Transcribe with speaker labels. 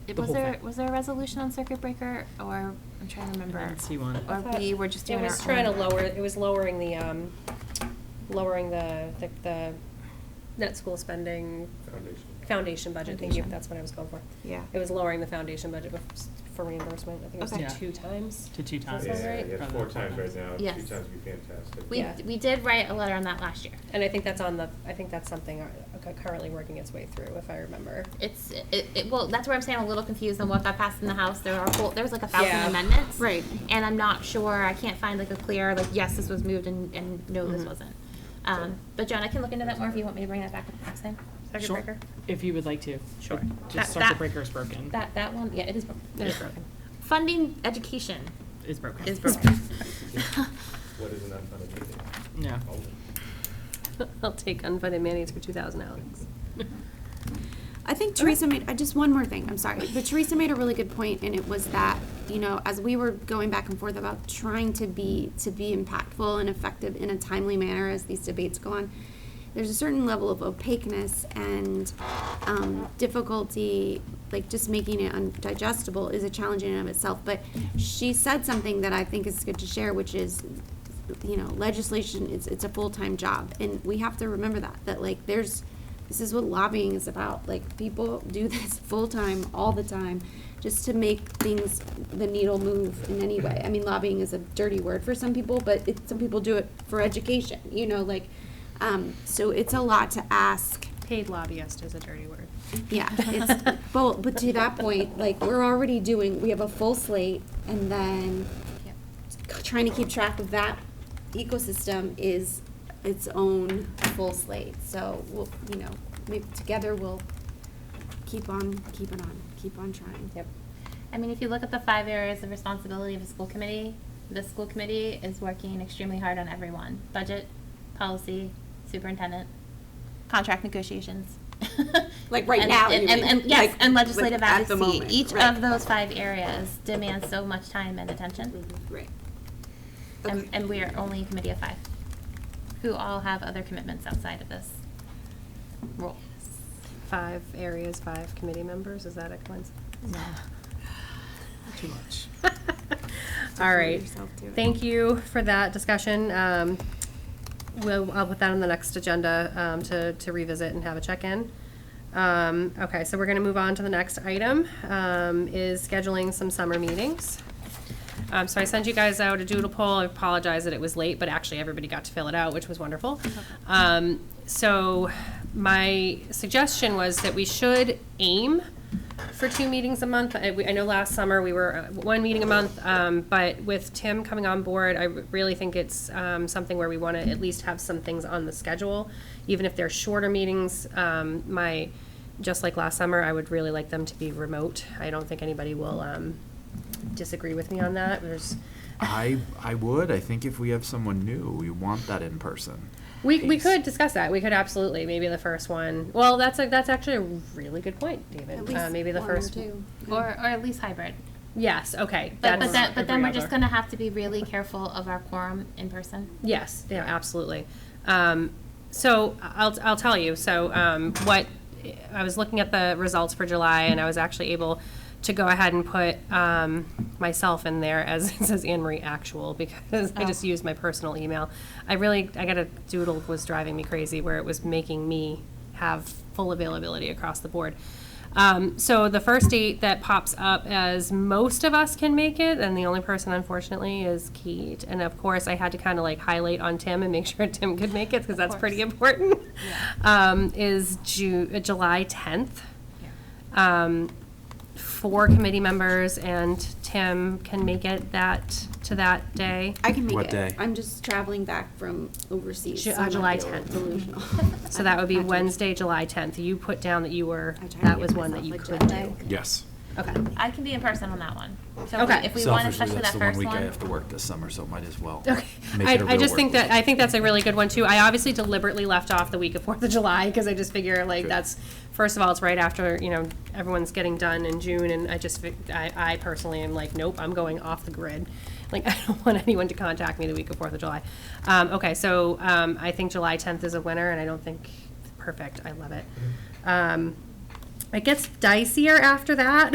Speaker 1: Did-
Speaker 2: the
Speaker 1: Was
Speaker 2: whole
Speaker 1: there,
Speaker 2: thing.
Speaker 1: was there a resolution on circuit breaker, or, I'm trying to remember?
Speaker 2: I didn't see one.
Speaker 1: Or we were just doing our
Speaker 3: It was trying to
Speaker 1: own?
Speaker 3: lower, it was lowering the, um, lowering the, the, the net school spending.
Speaker 4: Foundation.
Speaker 3: Foundation budget, thank you,
Speaker 1: Foundation.
Speaker 3: that's what I was going for.
Speaker 1: Yeah.
Speaker 3: It was lowering the foundation budget bef- for reimbursement, I think
Speaker 1: Okay.
Speaker 3: it
Speaker 1: Yeah.
Speaker 3: was two times.
Speaker 2: To two
Speaker 3: Does
Speaker 2: times.
Speaker 3: that sound
Speaker 4: Yeah,
Speaker 3: right?
Speaker 4: yeah, four times right now, two
Speaker 1: Yes.
Speaker 4: times would be fantastic.
Speaker 1: We,
Speaker 3: Yeah.
Speaker 1: we did write a letter on that last year.
Speaker 3: And I think that's on the, I think that's something uh, cu- currently working its way through, if I remember.
Speaker 1: It's, it, it, well, that's where I'm saying I'm a little confused on what got passed in the House. There are, a whole- there was like a thousand
Speaker 3: Yeah.
Speaker 1: amendments.
Speaker 5: Right.
Speaker 1: And I'm not sure, I can't find like a clear, like, yes, this was moved and, and no, this
Speaker 2: Mhm.
Speaker 1: wasn't. Um, but John, I can look into that more if you want me to bring that back up next time. Circuit
Speaker 2: Sure,
Speaker 1: breaker?
Speaker 2: If you would like to.
Speaker 1: Sure.
Speaker 2: But
Speaker 1: That-
Speaker 2: Just
Speaker 1: that-
Speaker 2: circuit breaker is broken.
Speaker 1: That, that one, yeah, it is broken. It is
Speaker 2: Yeah.
Speaker 1: broken. Funding education
Speaker 2: Is broken.
Speaker 1: is broken.
Speaker 4: What is an unfunded mandate?
Speaker 2: Yeah.
Speaker 3: I'll take unfunded mandates for two thousand, Alex.
Speaker 5: I think Teresa made, I just, one more thing, I'm sorry, but Teresa made a really good point, and it was that, you know, as we were going back and forth about trying to be, to be impactful and effective in a timely manner as these debates go on, there's a certain level of opaqueness and, um, difficulty, like just making it undigestible is a challenge in and of itself, but she said something that I think is good to share, which is, you know, legislation, it's, it's a full-time job, and we have to remember that, that like, there's, this is what lobbying is about. Like, people do this full-time, all the time, just to make things, the needle move in any way. I mean, lobbying is a dirty word for some people, but it, some people do it for education, you know, like, um, so it's a lot to ask.
Speaker 3: Paid lobbyist is a dirty word.
Speaker 5: Yeah, it's, but, but to that point, like, we're already doing, we have a full slate, and then trying to keep track of that ecosystem is its own full slate. So, we'll, you know, maybe together we'll keep on, keep it on, keep on trying.
Speaker 3: Yep.
Speaker 1: I mean, if you look at the five areas of responsibility of a school committee, the school committee is working extremely hard on everyone. Budget, policy, superintendent, contract negotiations.
Speaker 5: Like right
Speaker 1: And-
Speaker 5: now, you
Speaker 1: And, and,
Speaker 5: mean,
Speaker 1: and- yes,
Speaker 5: like
Speaker 1: and legislative
Speaker 5: with- at the
Speaker 1: advocacy.
Speaker 5: moment,
Speaker 1: Each
Speaker 5: right.
Speaker 1: of those five areas demands so much time and attention.
Speaker 5: Right.
Speaker 1: And,
Speaker 5: Mm-hmm. Okay.
Speaker 1: and we are only a committee of five, who all have other commitments outside of this role.
Speaker 3: Five areas, five committee members, is that a coincidence?
Speaker 1: No.
Speaker 2: Too much.
Speaker 3: All
Speaker 5: hold
Speaker 3: right.
Speaker 5: yourself to it.
Speaker 3: Thank you for that discussion. Um, We'll, I'll put that on the next agenda um, to to revisit and have a check-in. Um, Okay, so we're going to move on to the next item, um, is scheduling some summer meetings. Um, So I sent you guys out a doodle poll. I apologize that it was late, but actually everybody got to fill it out, which was wonderful. Um, So my suggestion was that we should aim for two meetings a month. I, we- I know last summer we were uh, one meeting a month, um, but with Tim coming on board, I really think it's, um, something where we want to at least have some things on the schedule. Even if they're shorter meetings, um, my, just like last summer, I would really like them to be remote. I don't think anybody will, um, disagree with me on that. There's,
Speaker 6: I I would. I think if we have someone new, we want that in person.
Speaker 3: We, we
Speaker 6: piece.
Speaker 3: could discuss that. We could absolutely maybe the first one. Well, that's a, that's actually a really good point, David.
Speaker 5: At
Speaker 3: uh,
Speaker 5: least
Speaker 3: maybe the
Speaker 5: one or
Speaker 3: first.
Speaker 5: two.
Speaker 1: Or, or at least hybrid.
Speaker 3: Yes. Okay.
Speaker 1: But, but
Speaker 3: that's
Speaker 1: then, but then we're just
Speaker 3: agreeable.
Speaker 1: gonna have to be really careful of our quorum in person.
Speaker 3: Yes, yeah, absolutely. Um, so I'll, I'll tell you, so, um, what, I was looking at the results for July and I was actually able to go ahead and put, um, myself in there as, it says Anne Marie Actual because I just used my personal email. I really, I got a doodle was driving me crazy where it was making me have full availability across the board. Um, so the first date that pops up as most of us can make it, and the only person unfortunately is Keat. And of course, I had to kind of like highlight on Tim and make sure Tim could make it because that's pretty important. Um, is Ju- uh, July tenth. Um, four committee members and Tim can make it that to that day.
Speaker 5: I can make it.
Speaker 6: What day?
Speaker 5: I'm just traveling back from overseas.
Speaker 3: Ju-
Speaker 5: so I
Speaker 3: uh,
Speaker 5: might
Speaker 3: July
Speaker 5: be a little
Speaker 3: 10th.
Speaker 5: Delusional.
Speaker 3: So that would be
Speaker 5: Not Jewish.
Speaker 3: Wednesday, July tenth. You put down that you were
Speaker 5: I try to
Speaker 3: that
Speaker 5: give
Speaker 3: was one that
Speaker 5: myself
Speaker 3: you
Speaker 5: a
Speaker 3: could
Speaker 5: jet
Speaker 3: do.
Speaker 5: lag.
Speaker 6: Yes.
Speaker 3: Okay.
Speaker 1: I can be in person on that one. So if we-
Speaker 3: Okay.
Speaker 1: if we want,
Speaker 6: Selfishly,
Speaker 1: especially
Speaker 6: that's
Speaker 1: that
Speaker 6: the one
Speaker 1: first
Speaker 6: week
Speaker 1: one.
Speaker 6: I have to work this summer, so might as well.
Speaker 3: Okay.
Speaker 6: make
Speaker 3: I,
Speaker 6: it a
Speaker 3: I
Speaker 6: real
Speaker 3: just
Speaker 6: work
Speaker 3: think
Speaker 6: week.
Speaker 3: that, I think that's a really good one too. I obviously deliberately left off the week of Fourth of July because I just figure like
Speaker 6: Good.
Speaker 3: that's, first of all, it's right after, you know, everyone's getting done in June and I just, fi- I, I personally am like, nope, I'm going off the grid. Like, I don't want anyone to contact me the week of Fourth of July. Um, okay, so, um, I think July tenth is a winner and I don't think,
Speaker 6: Mm-hmm.
Speaker 3: perfect, I love it. Um, it gets dicier after that.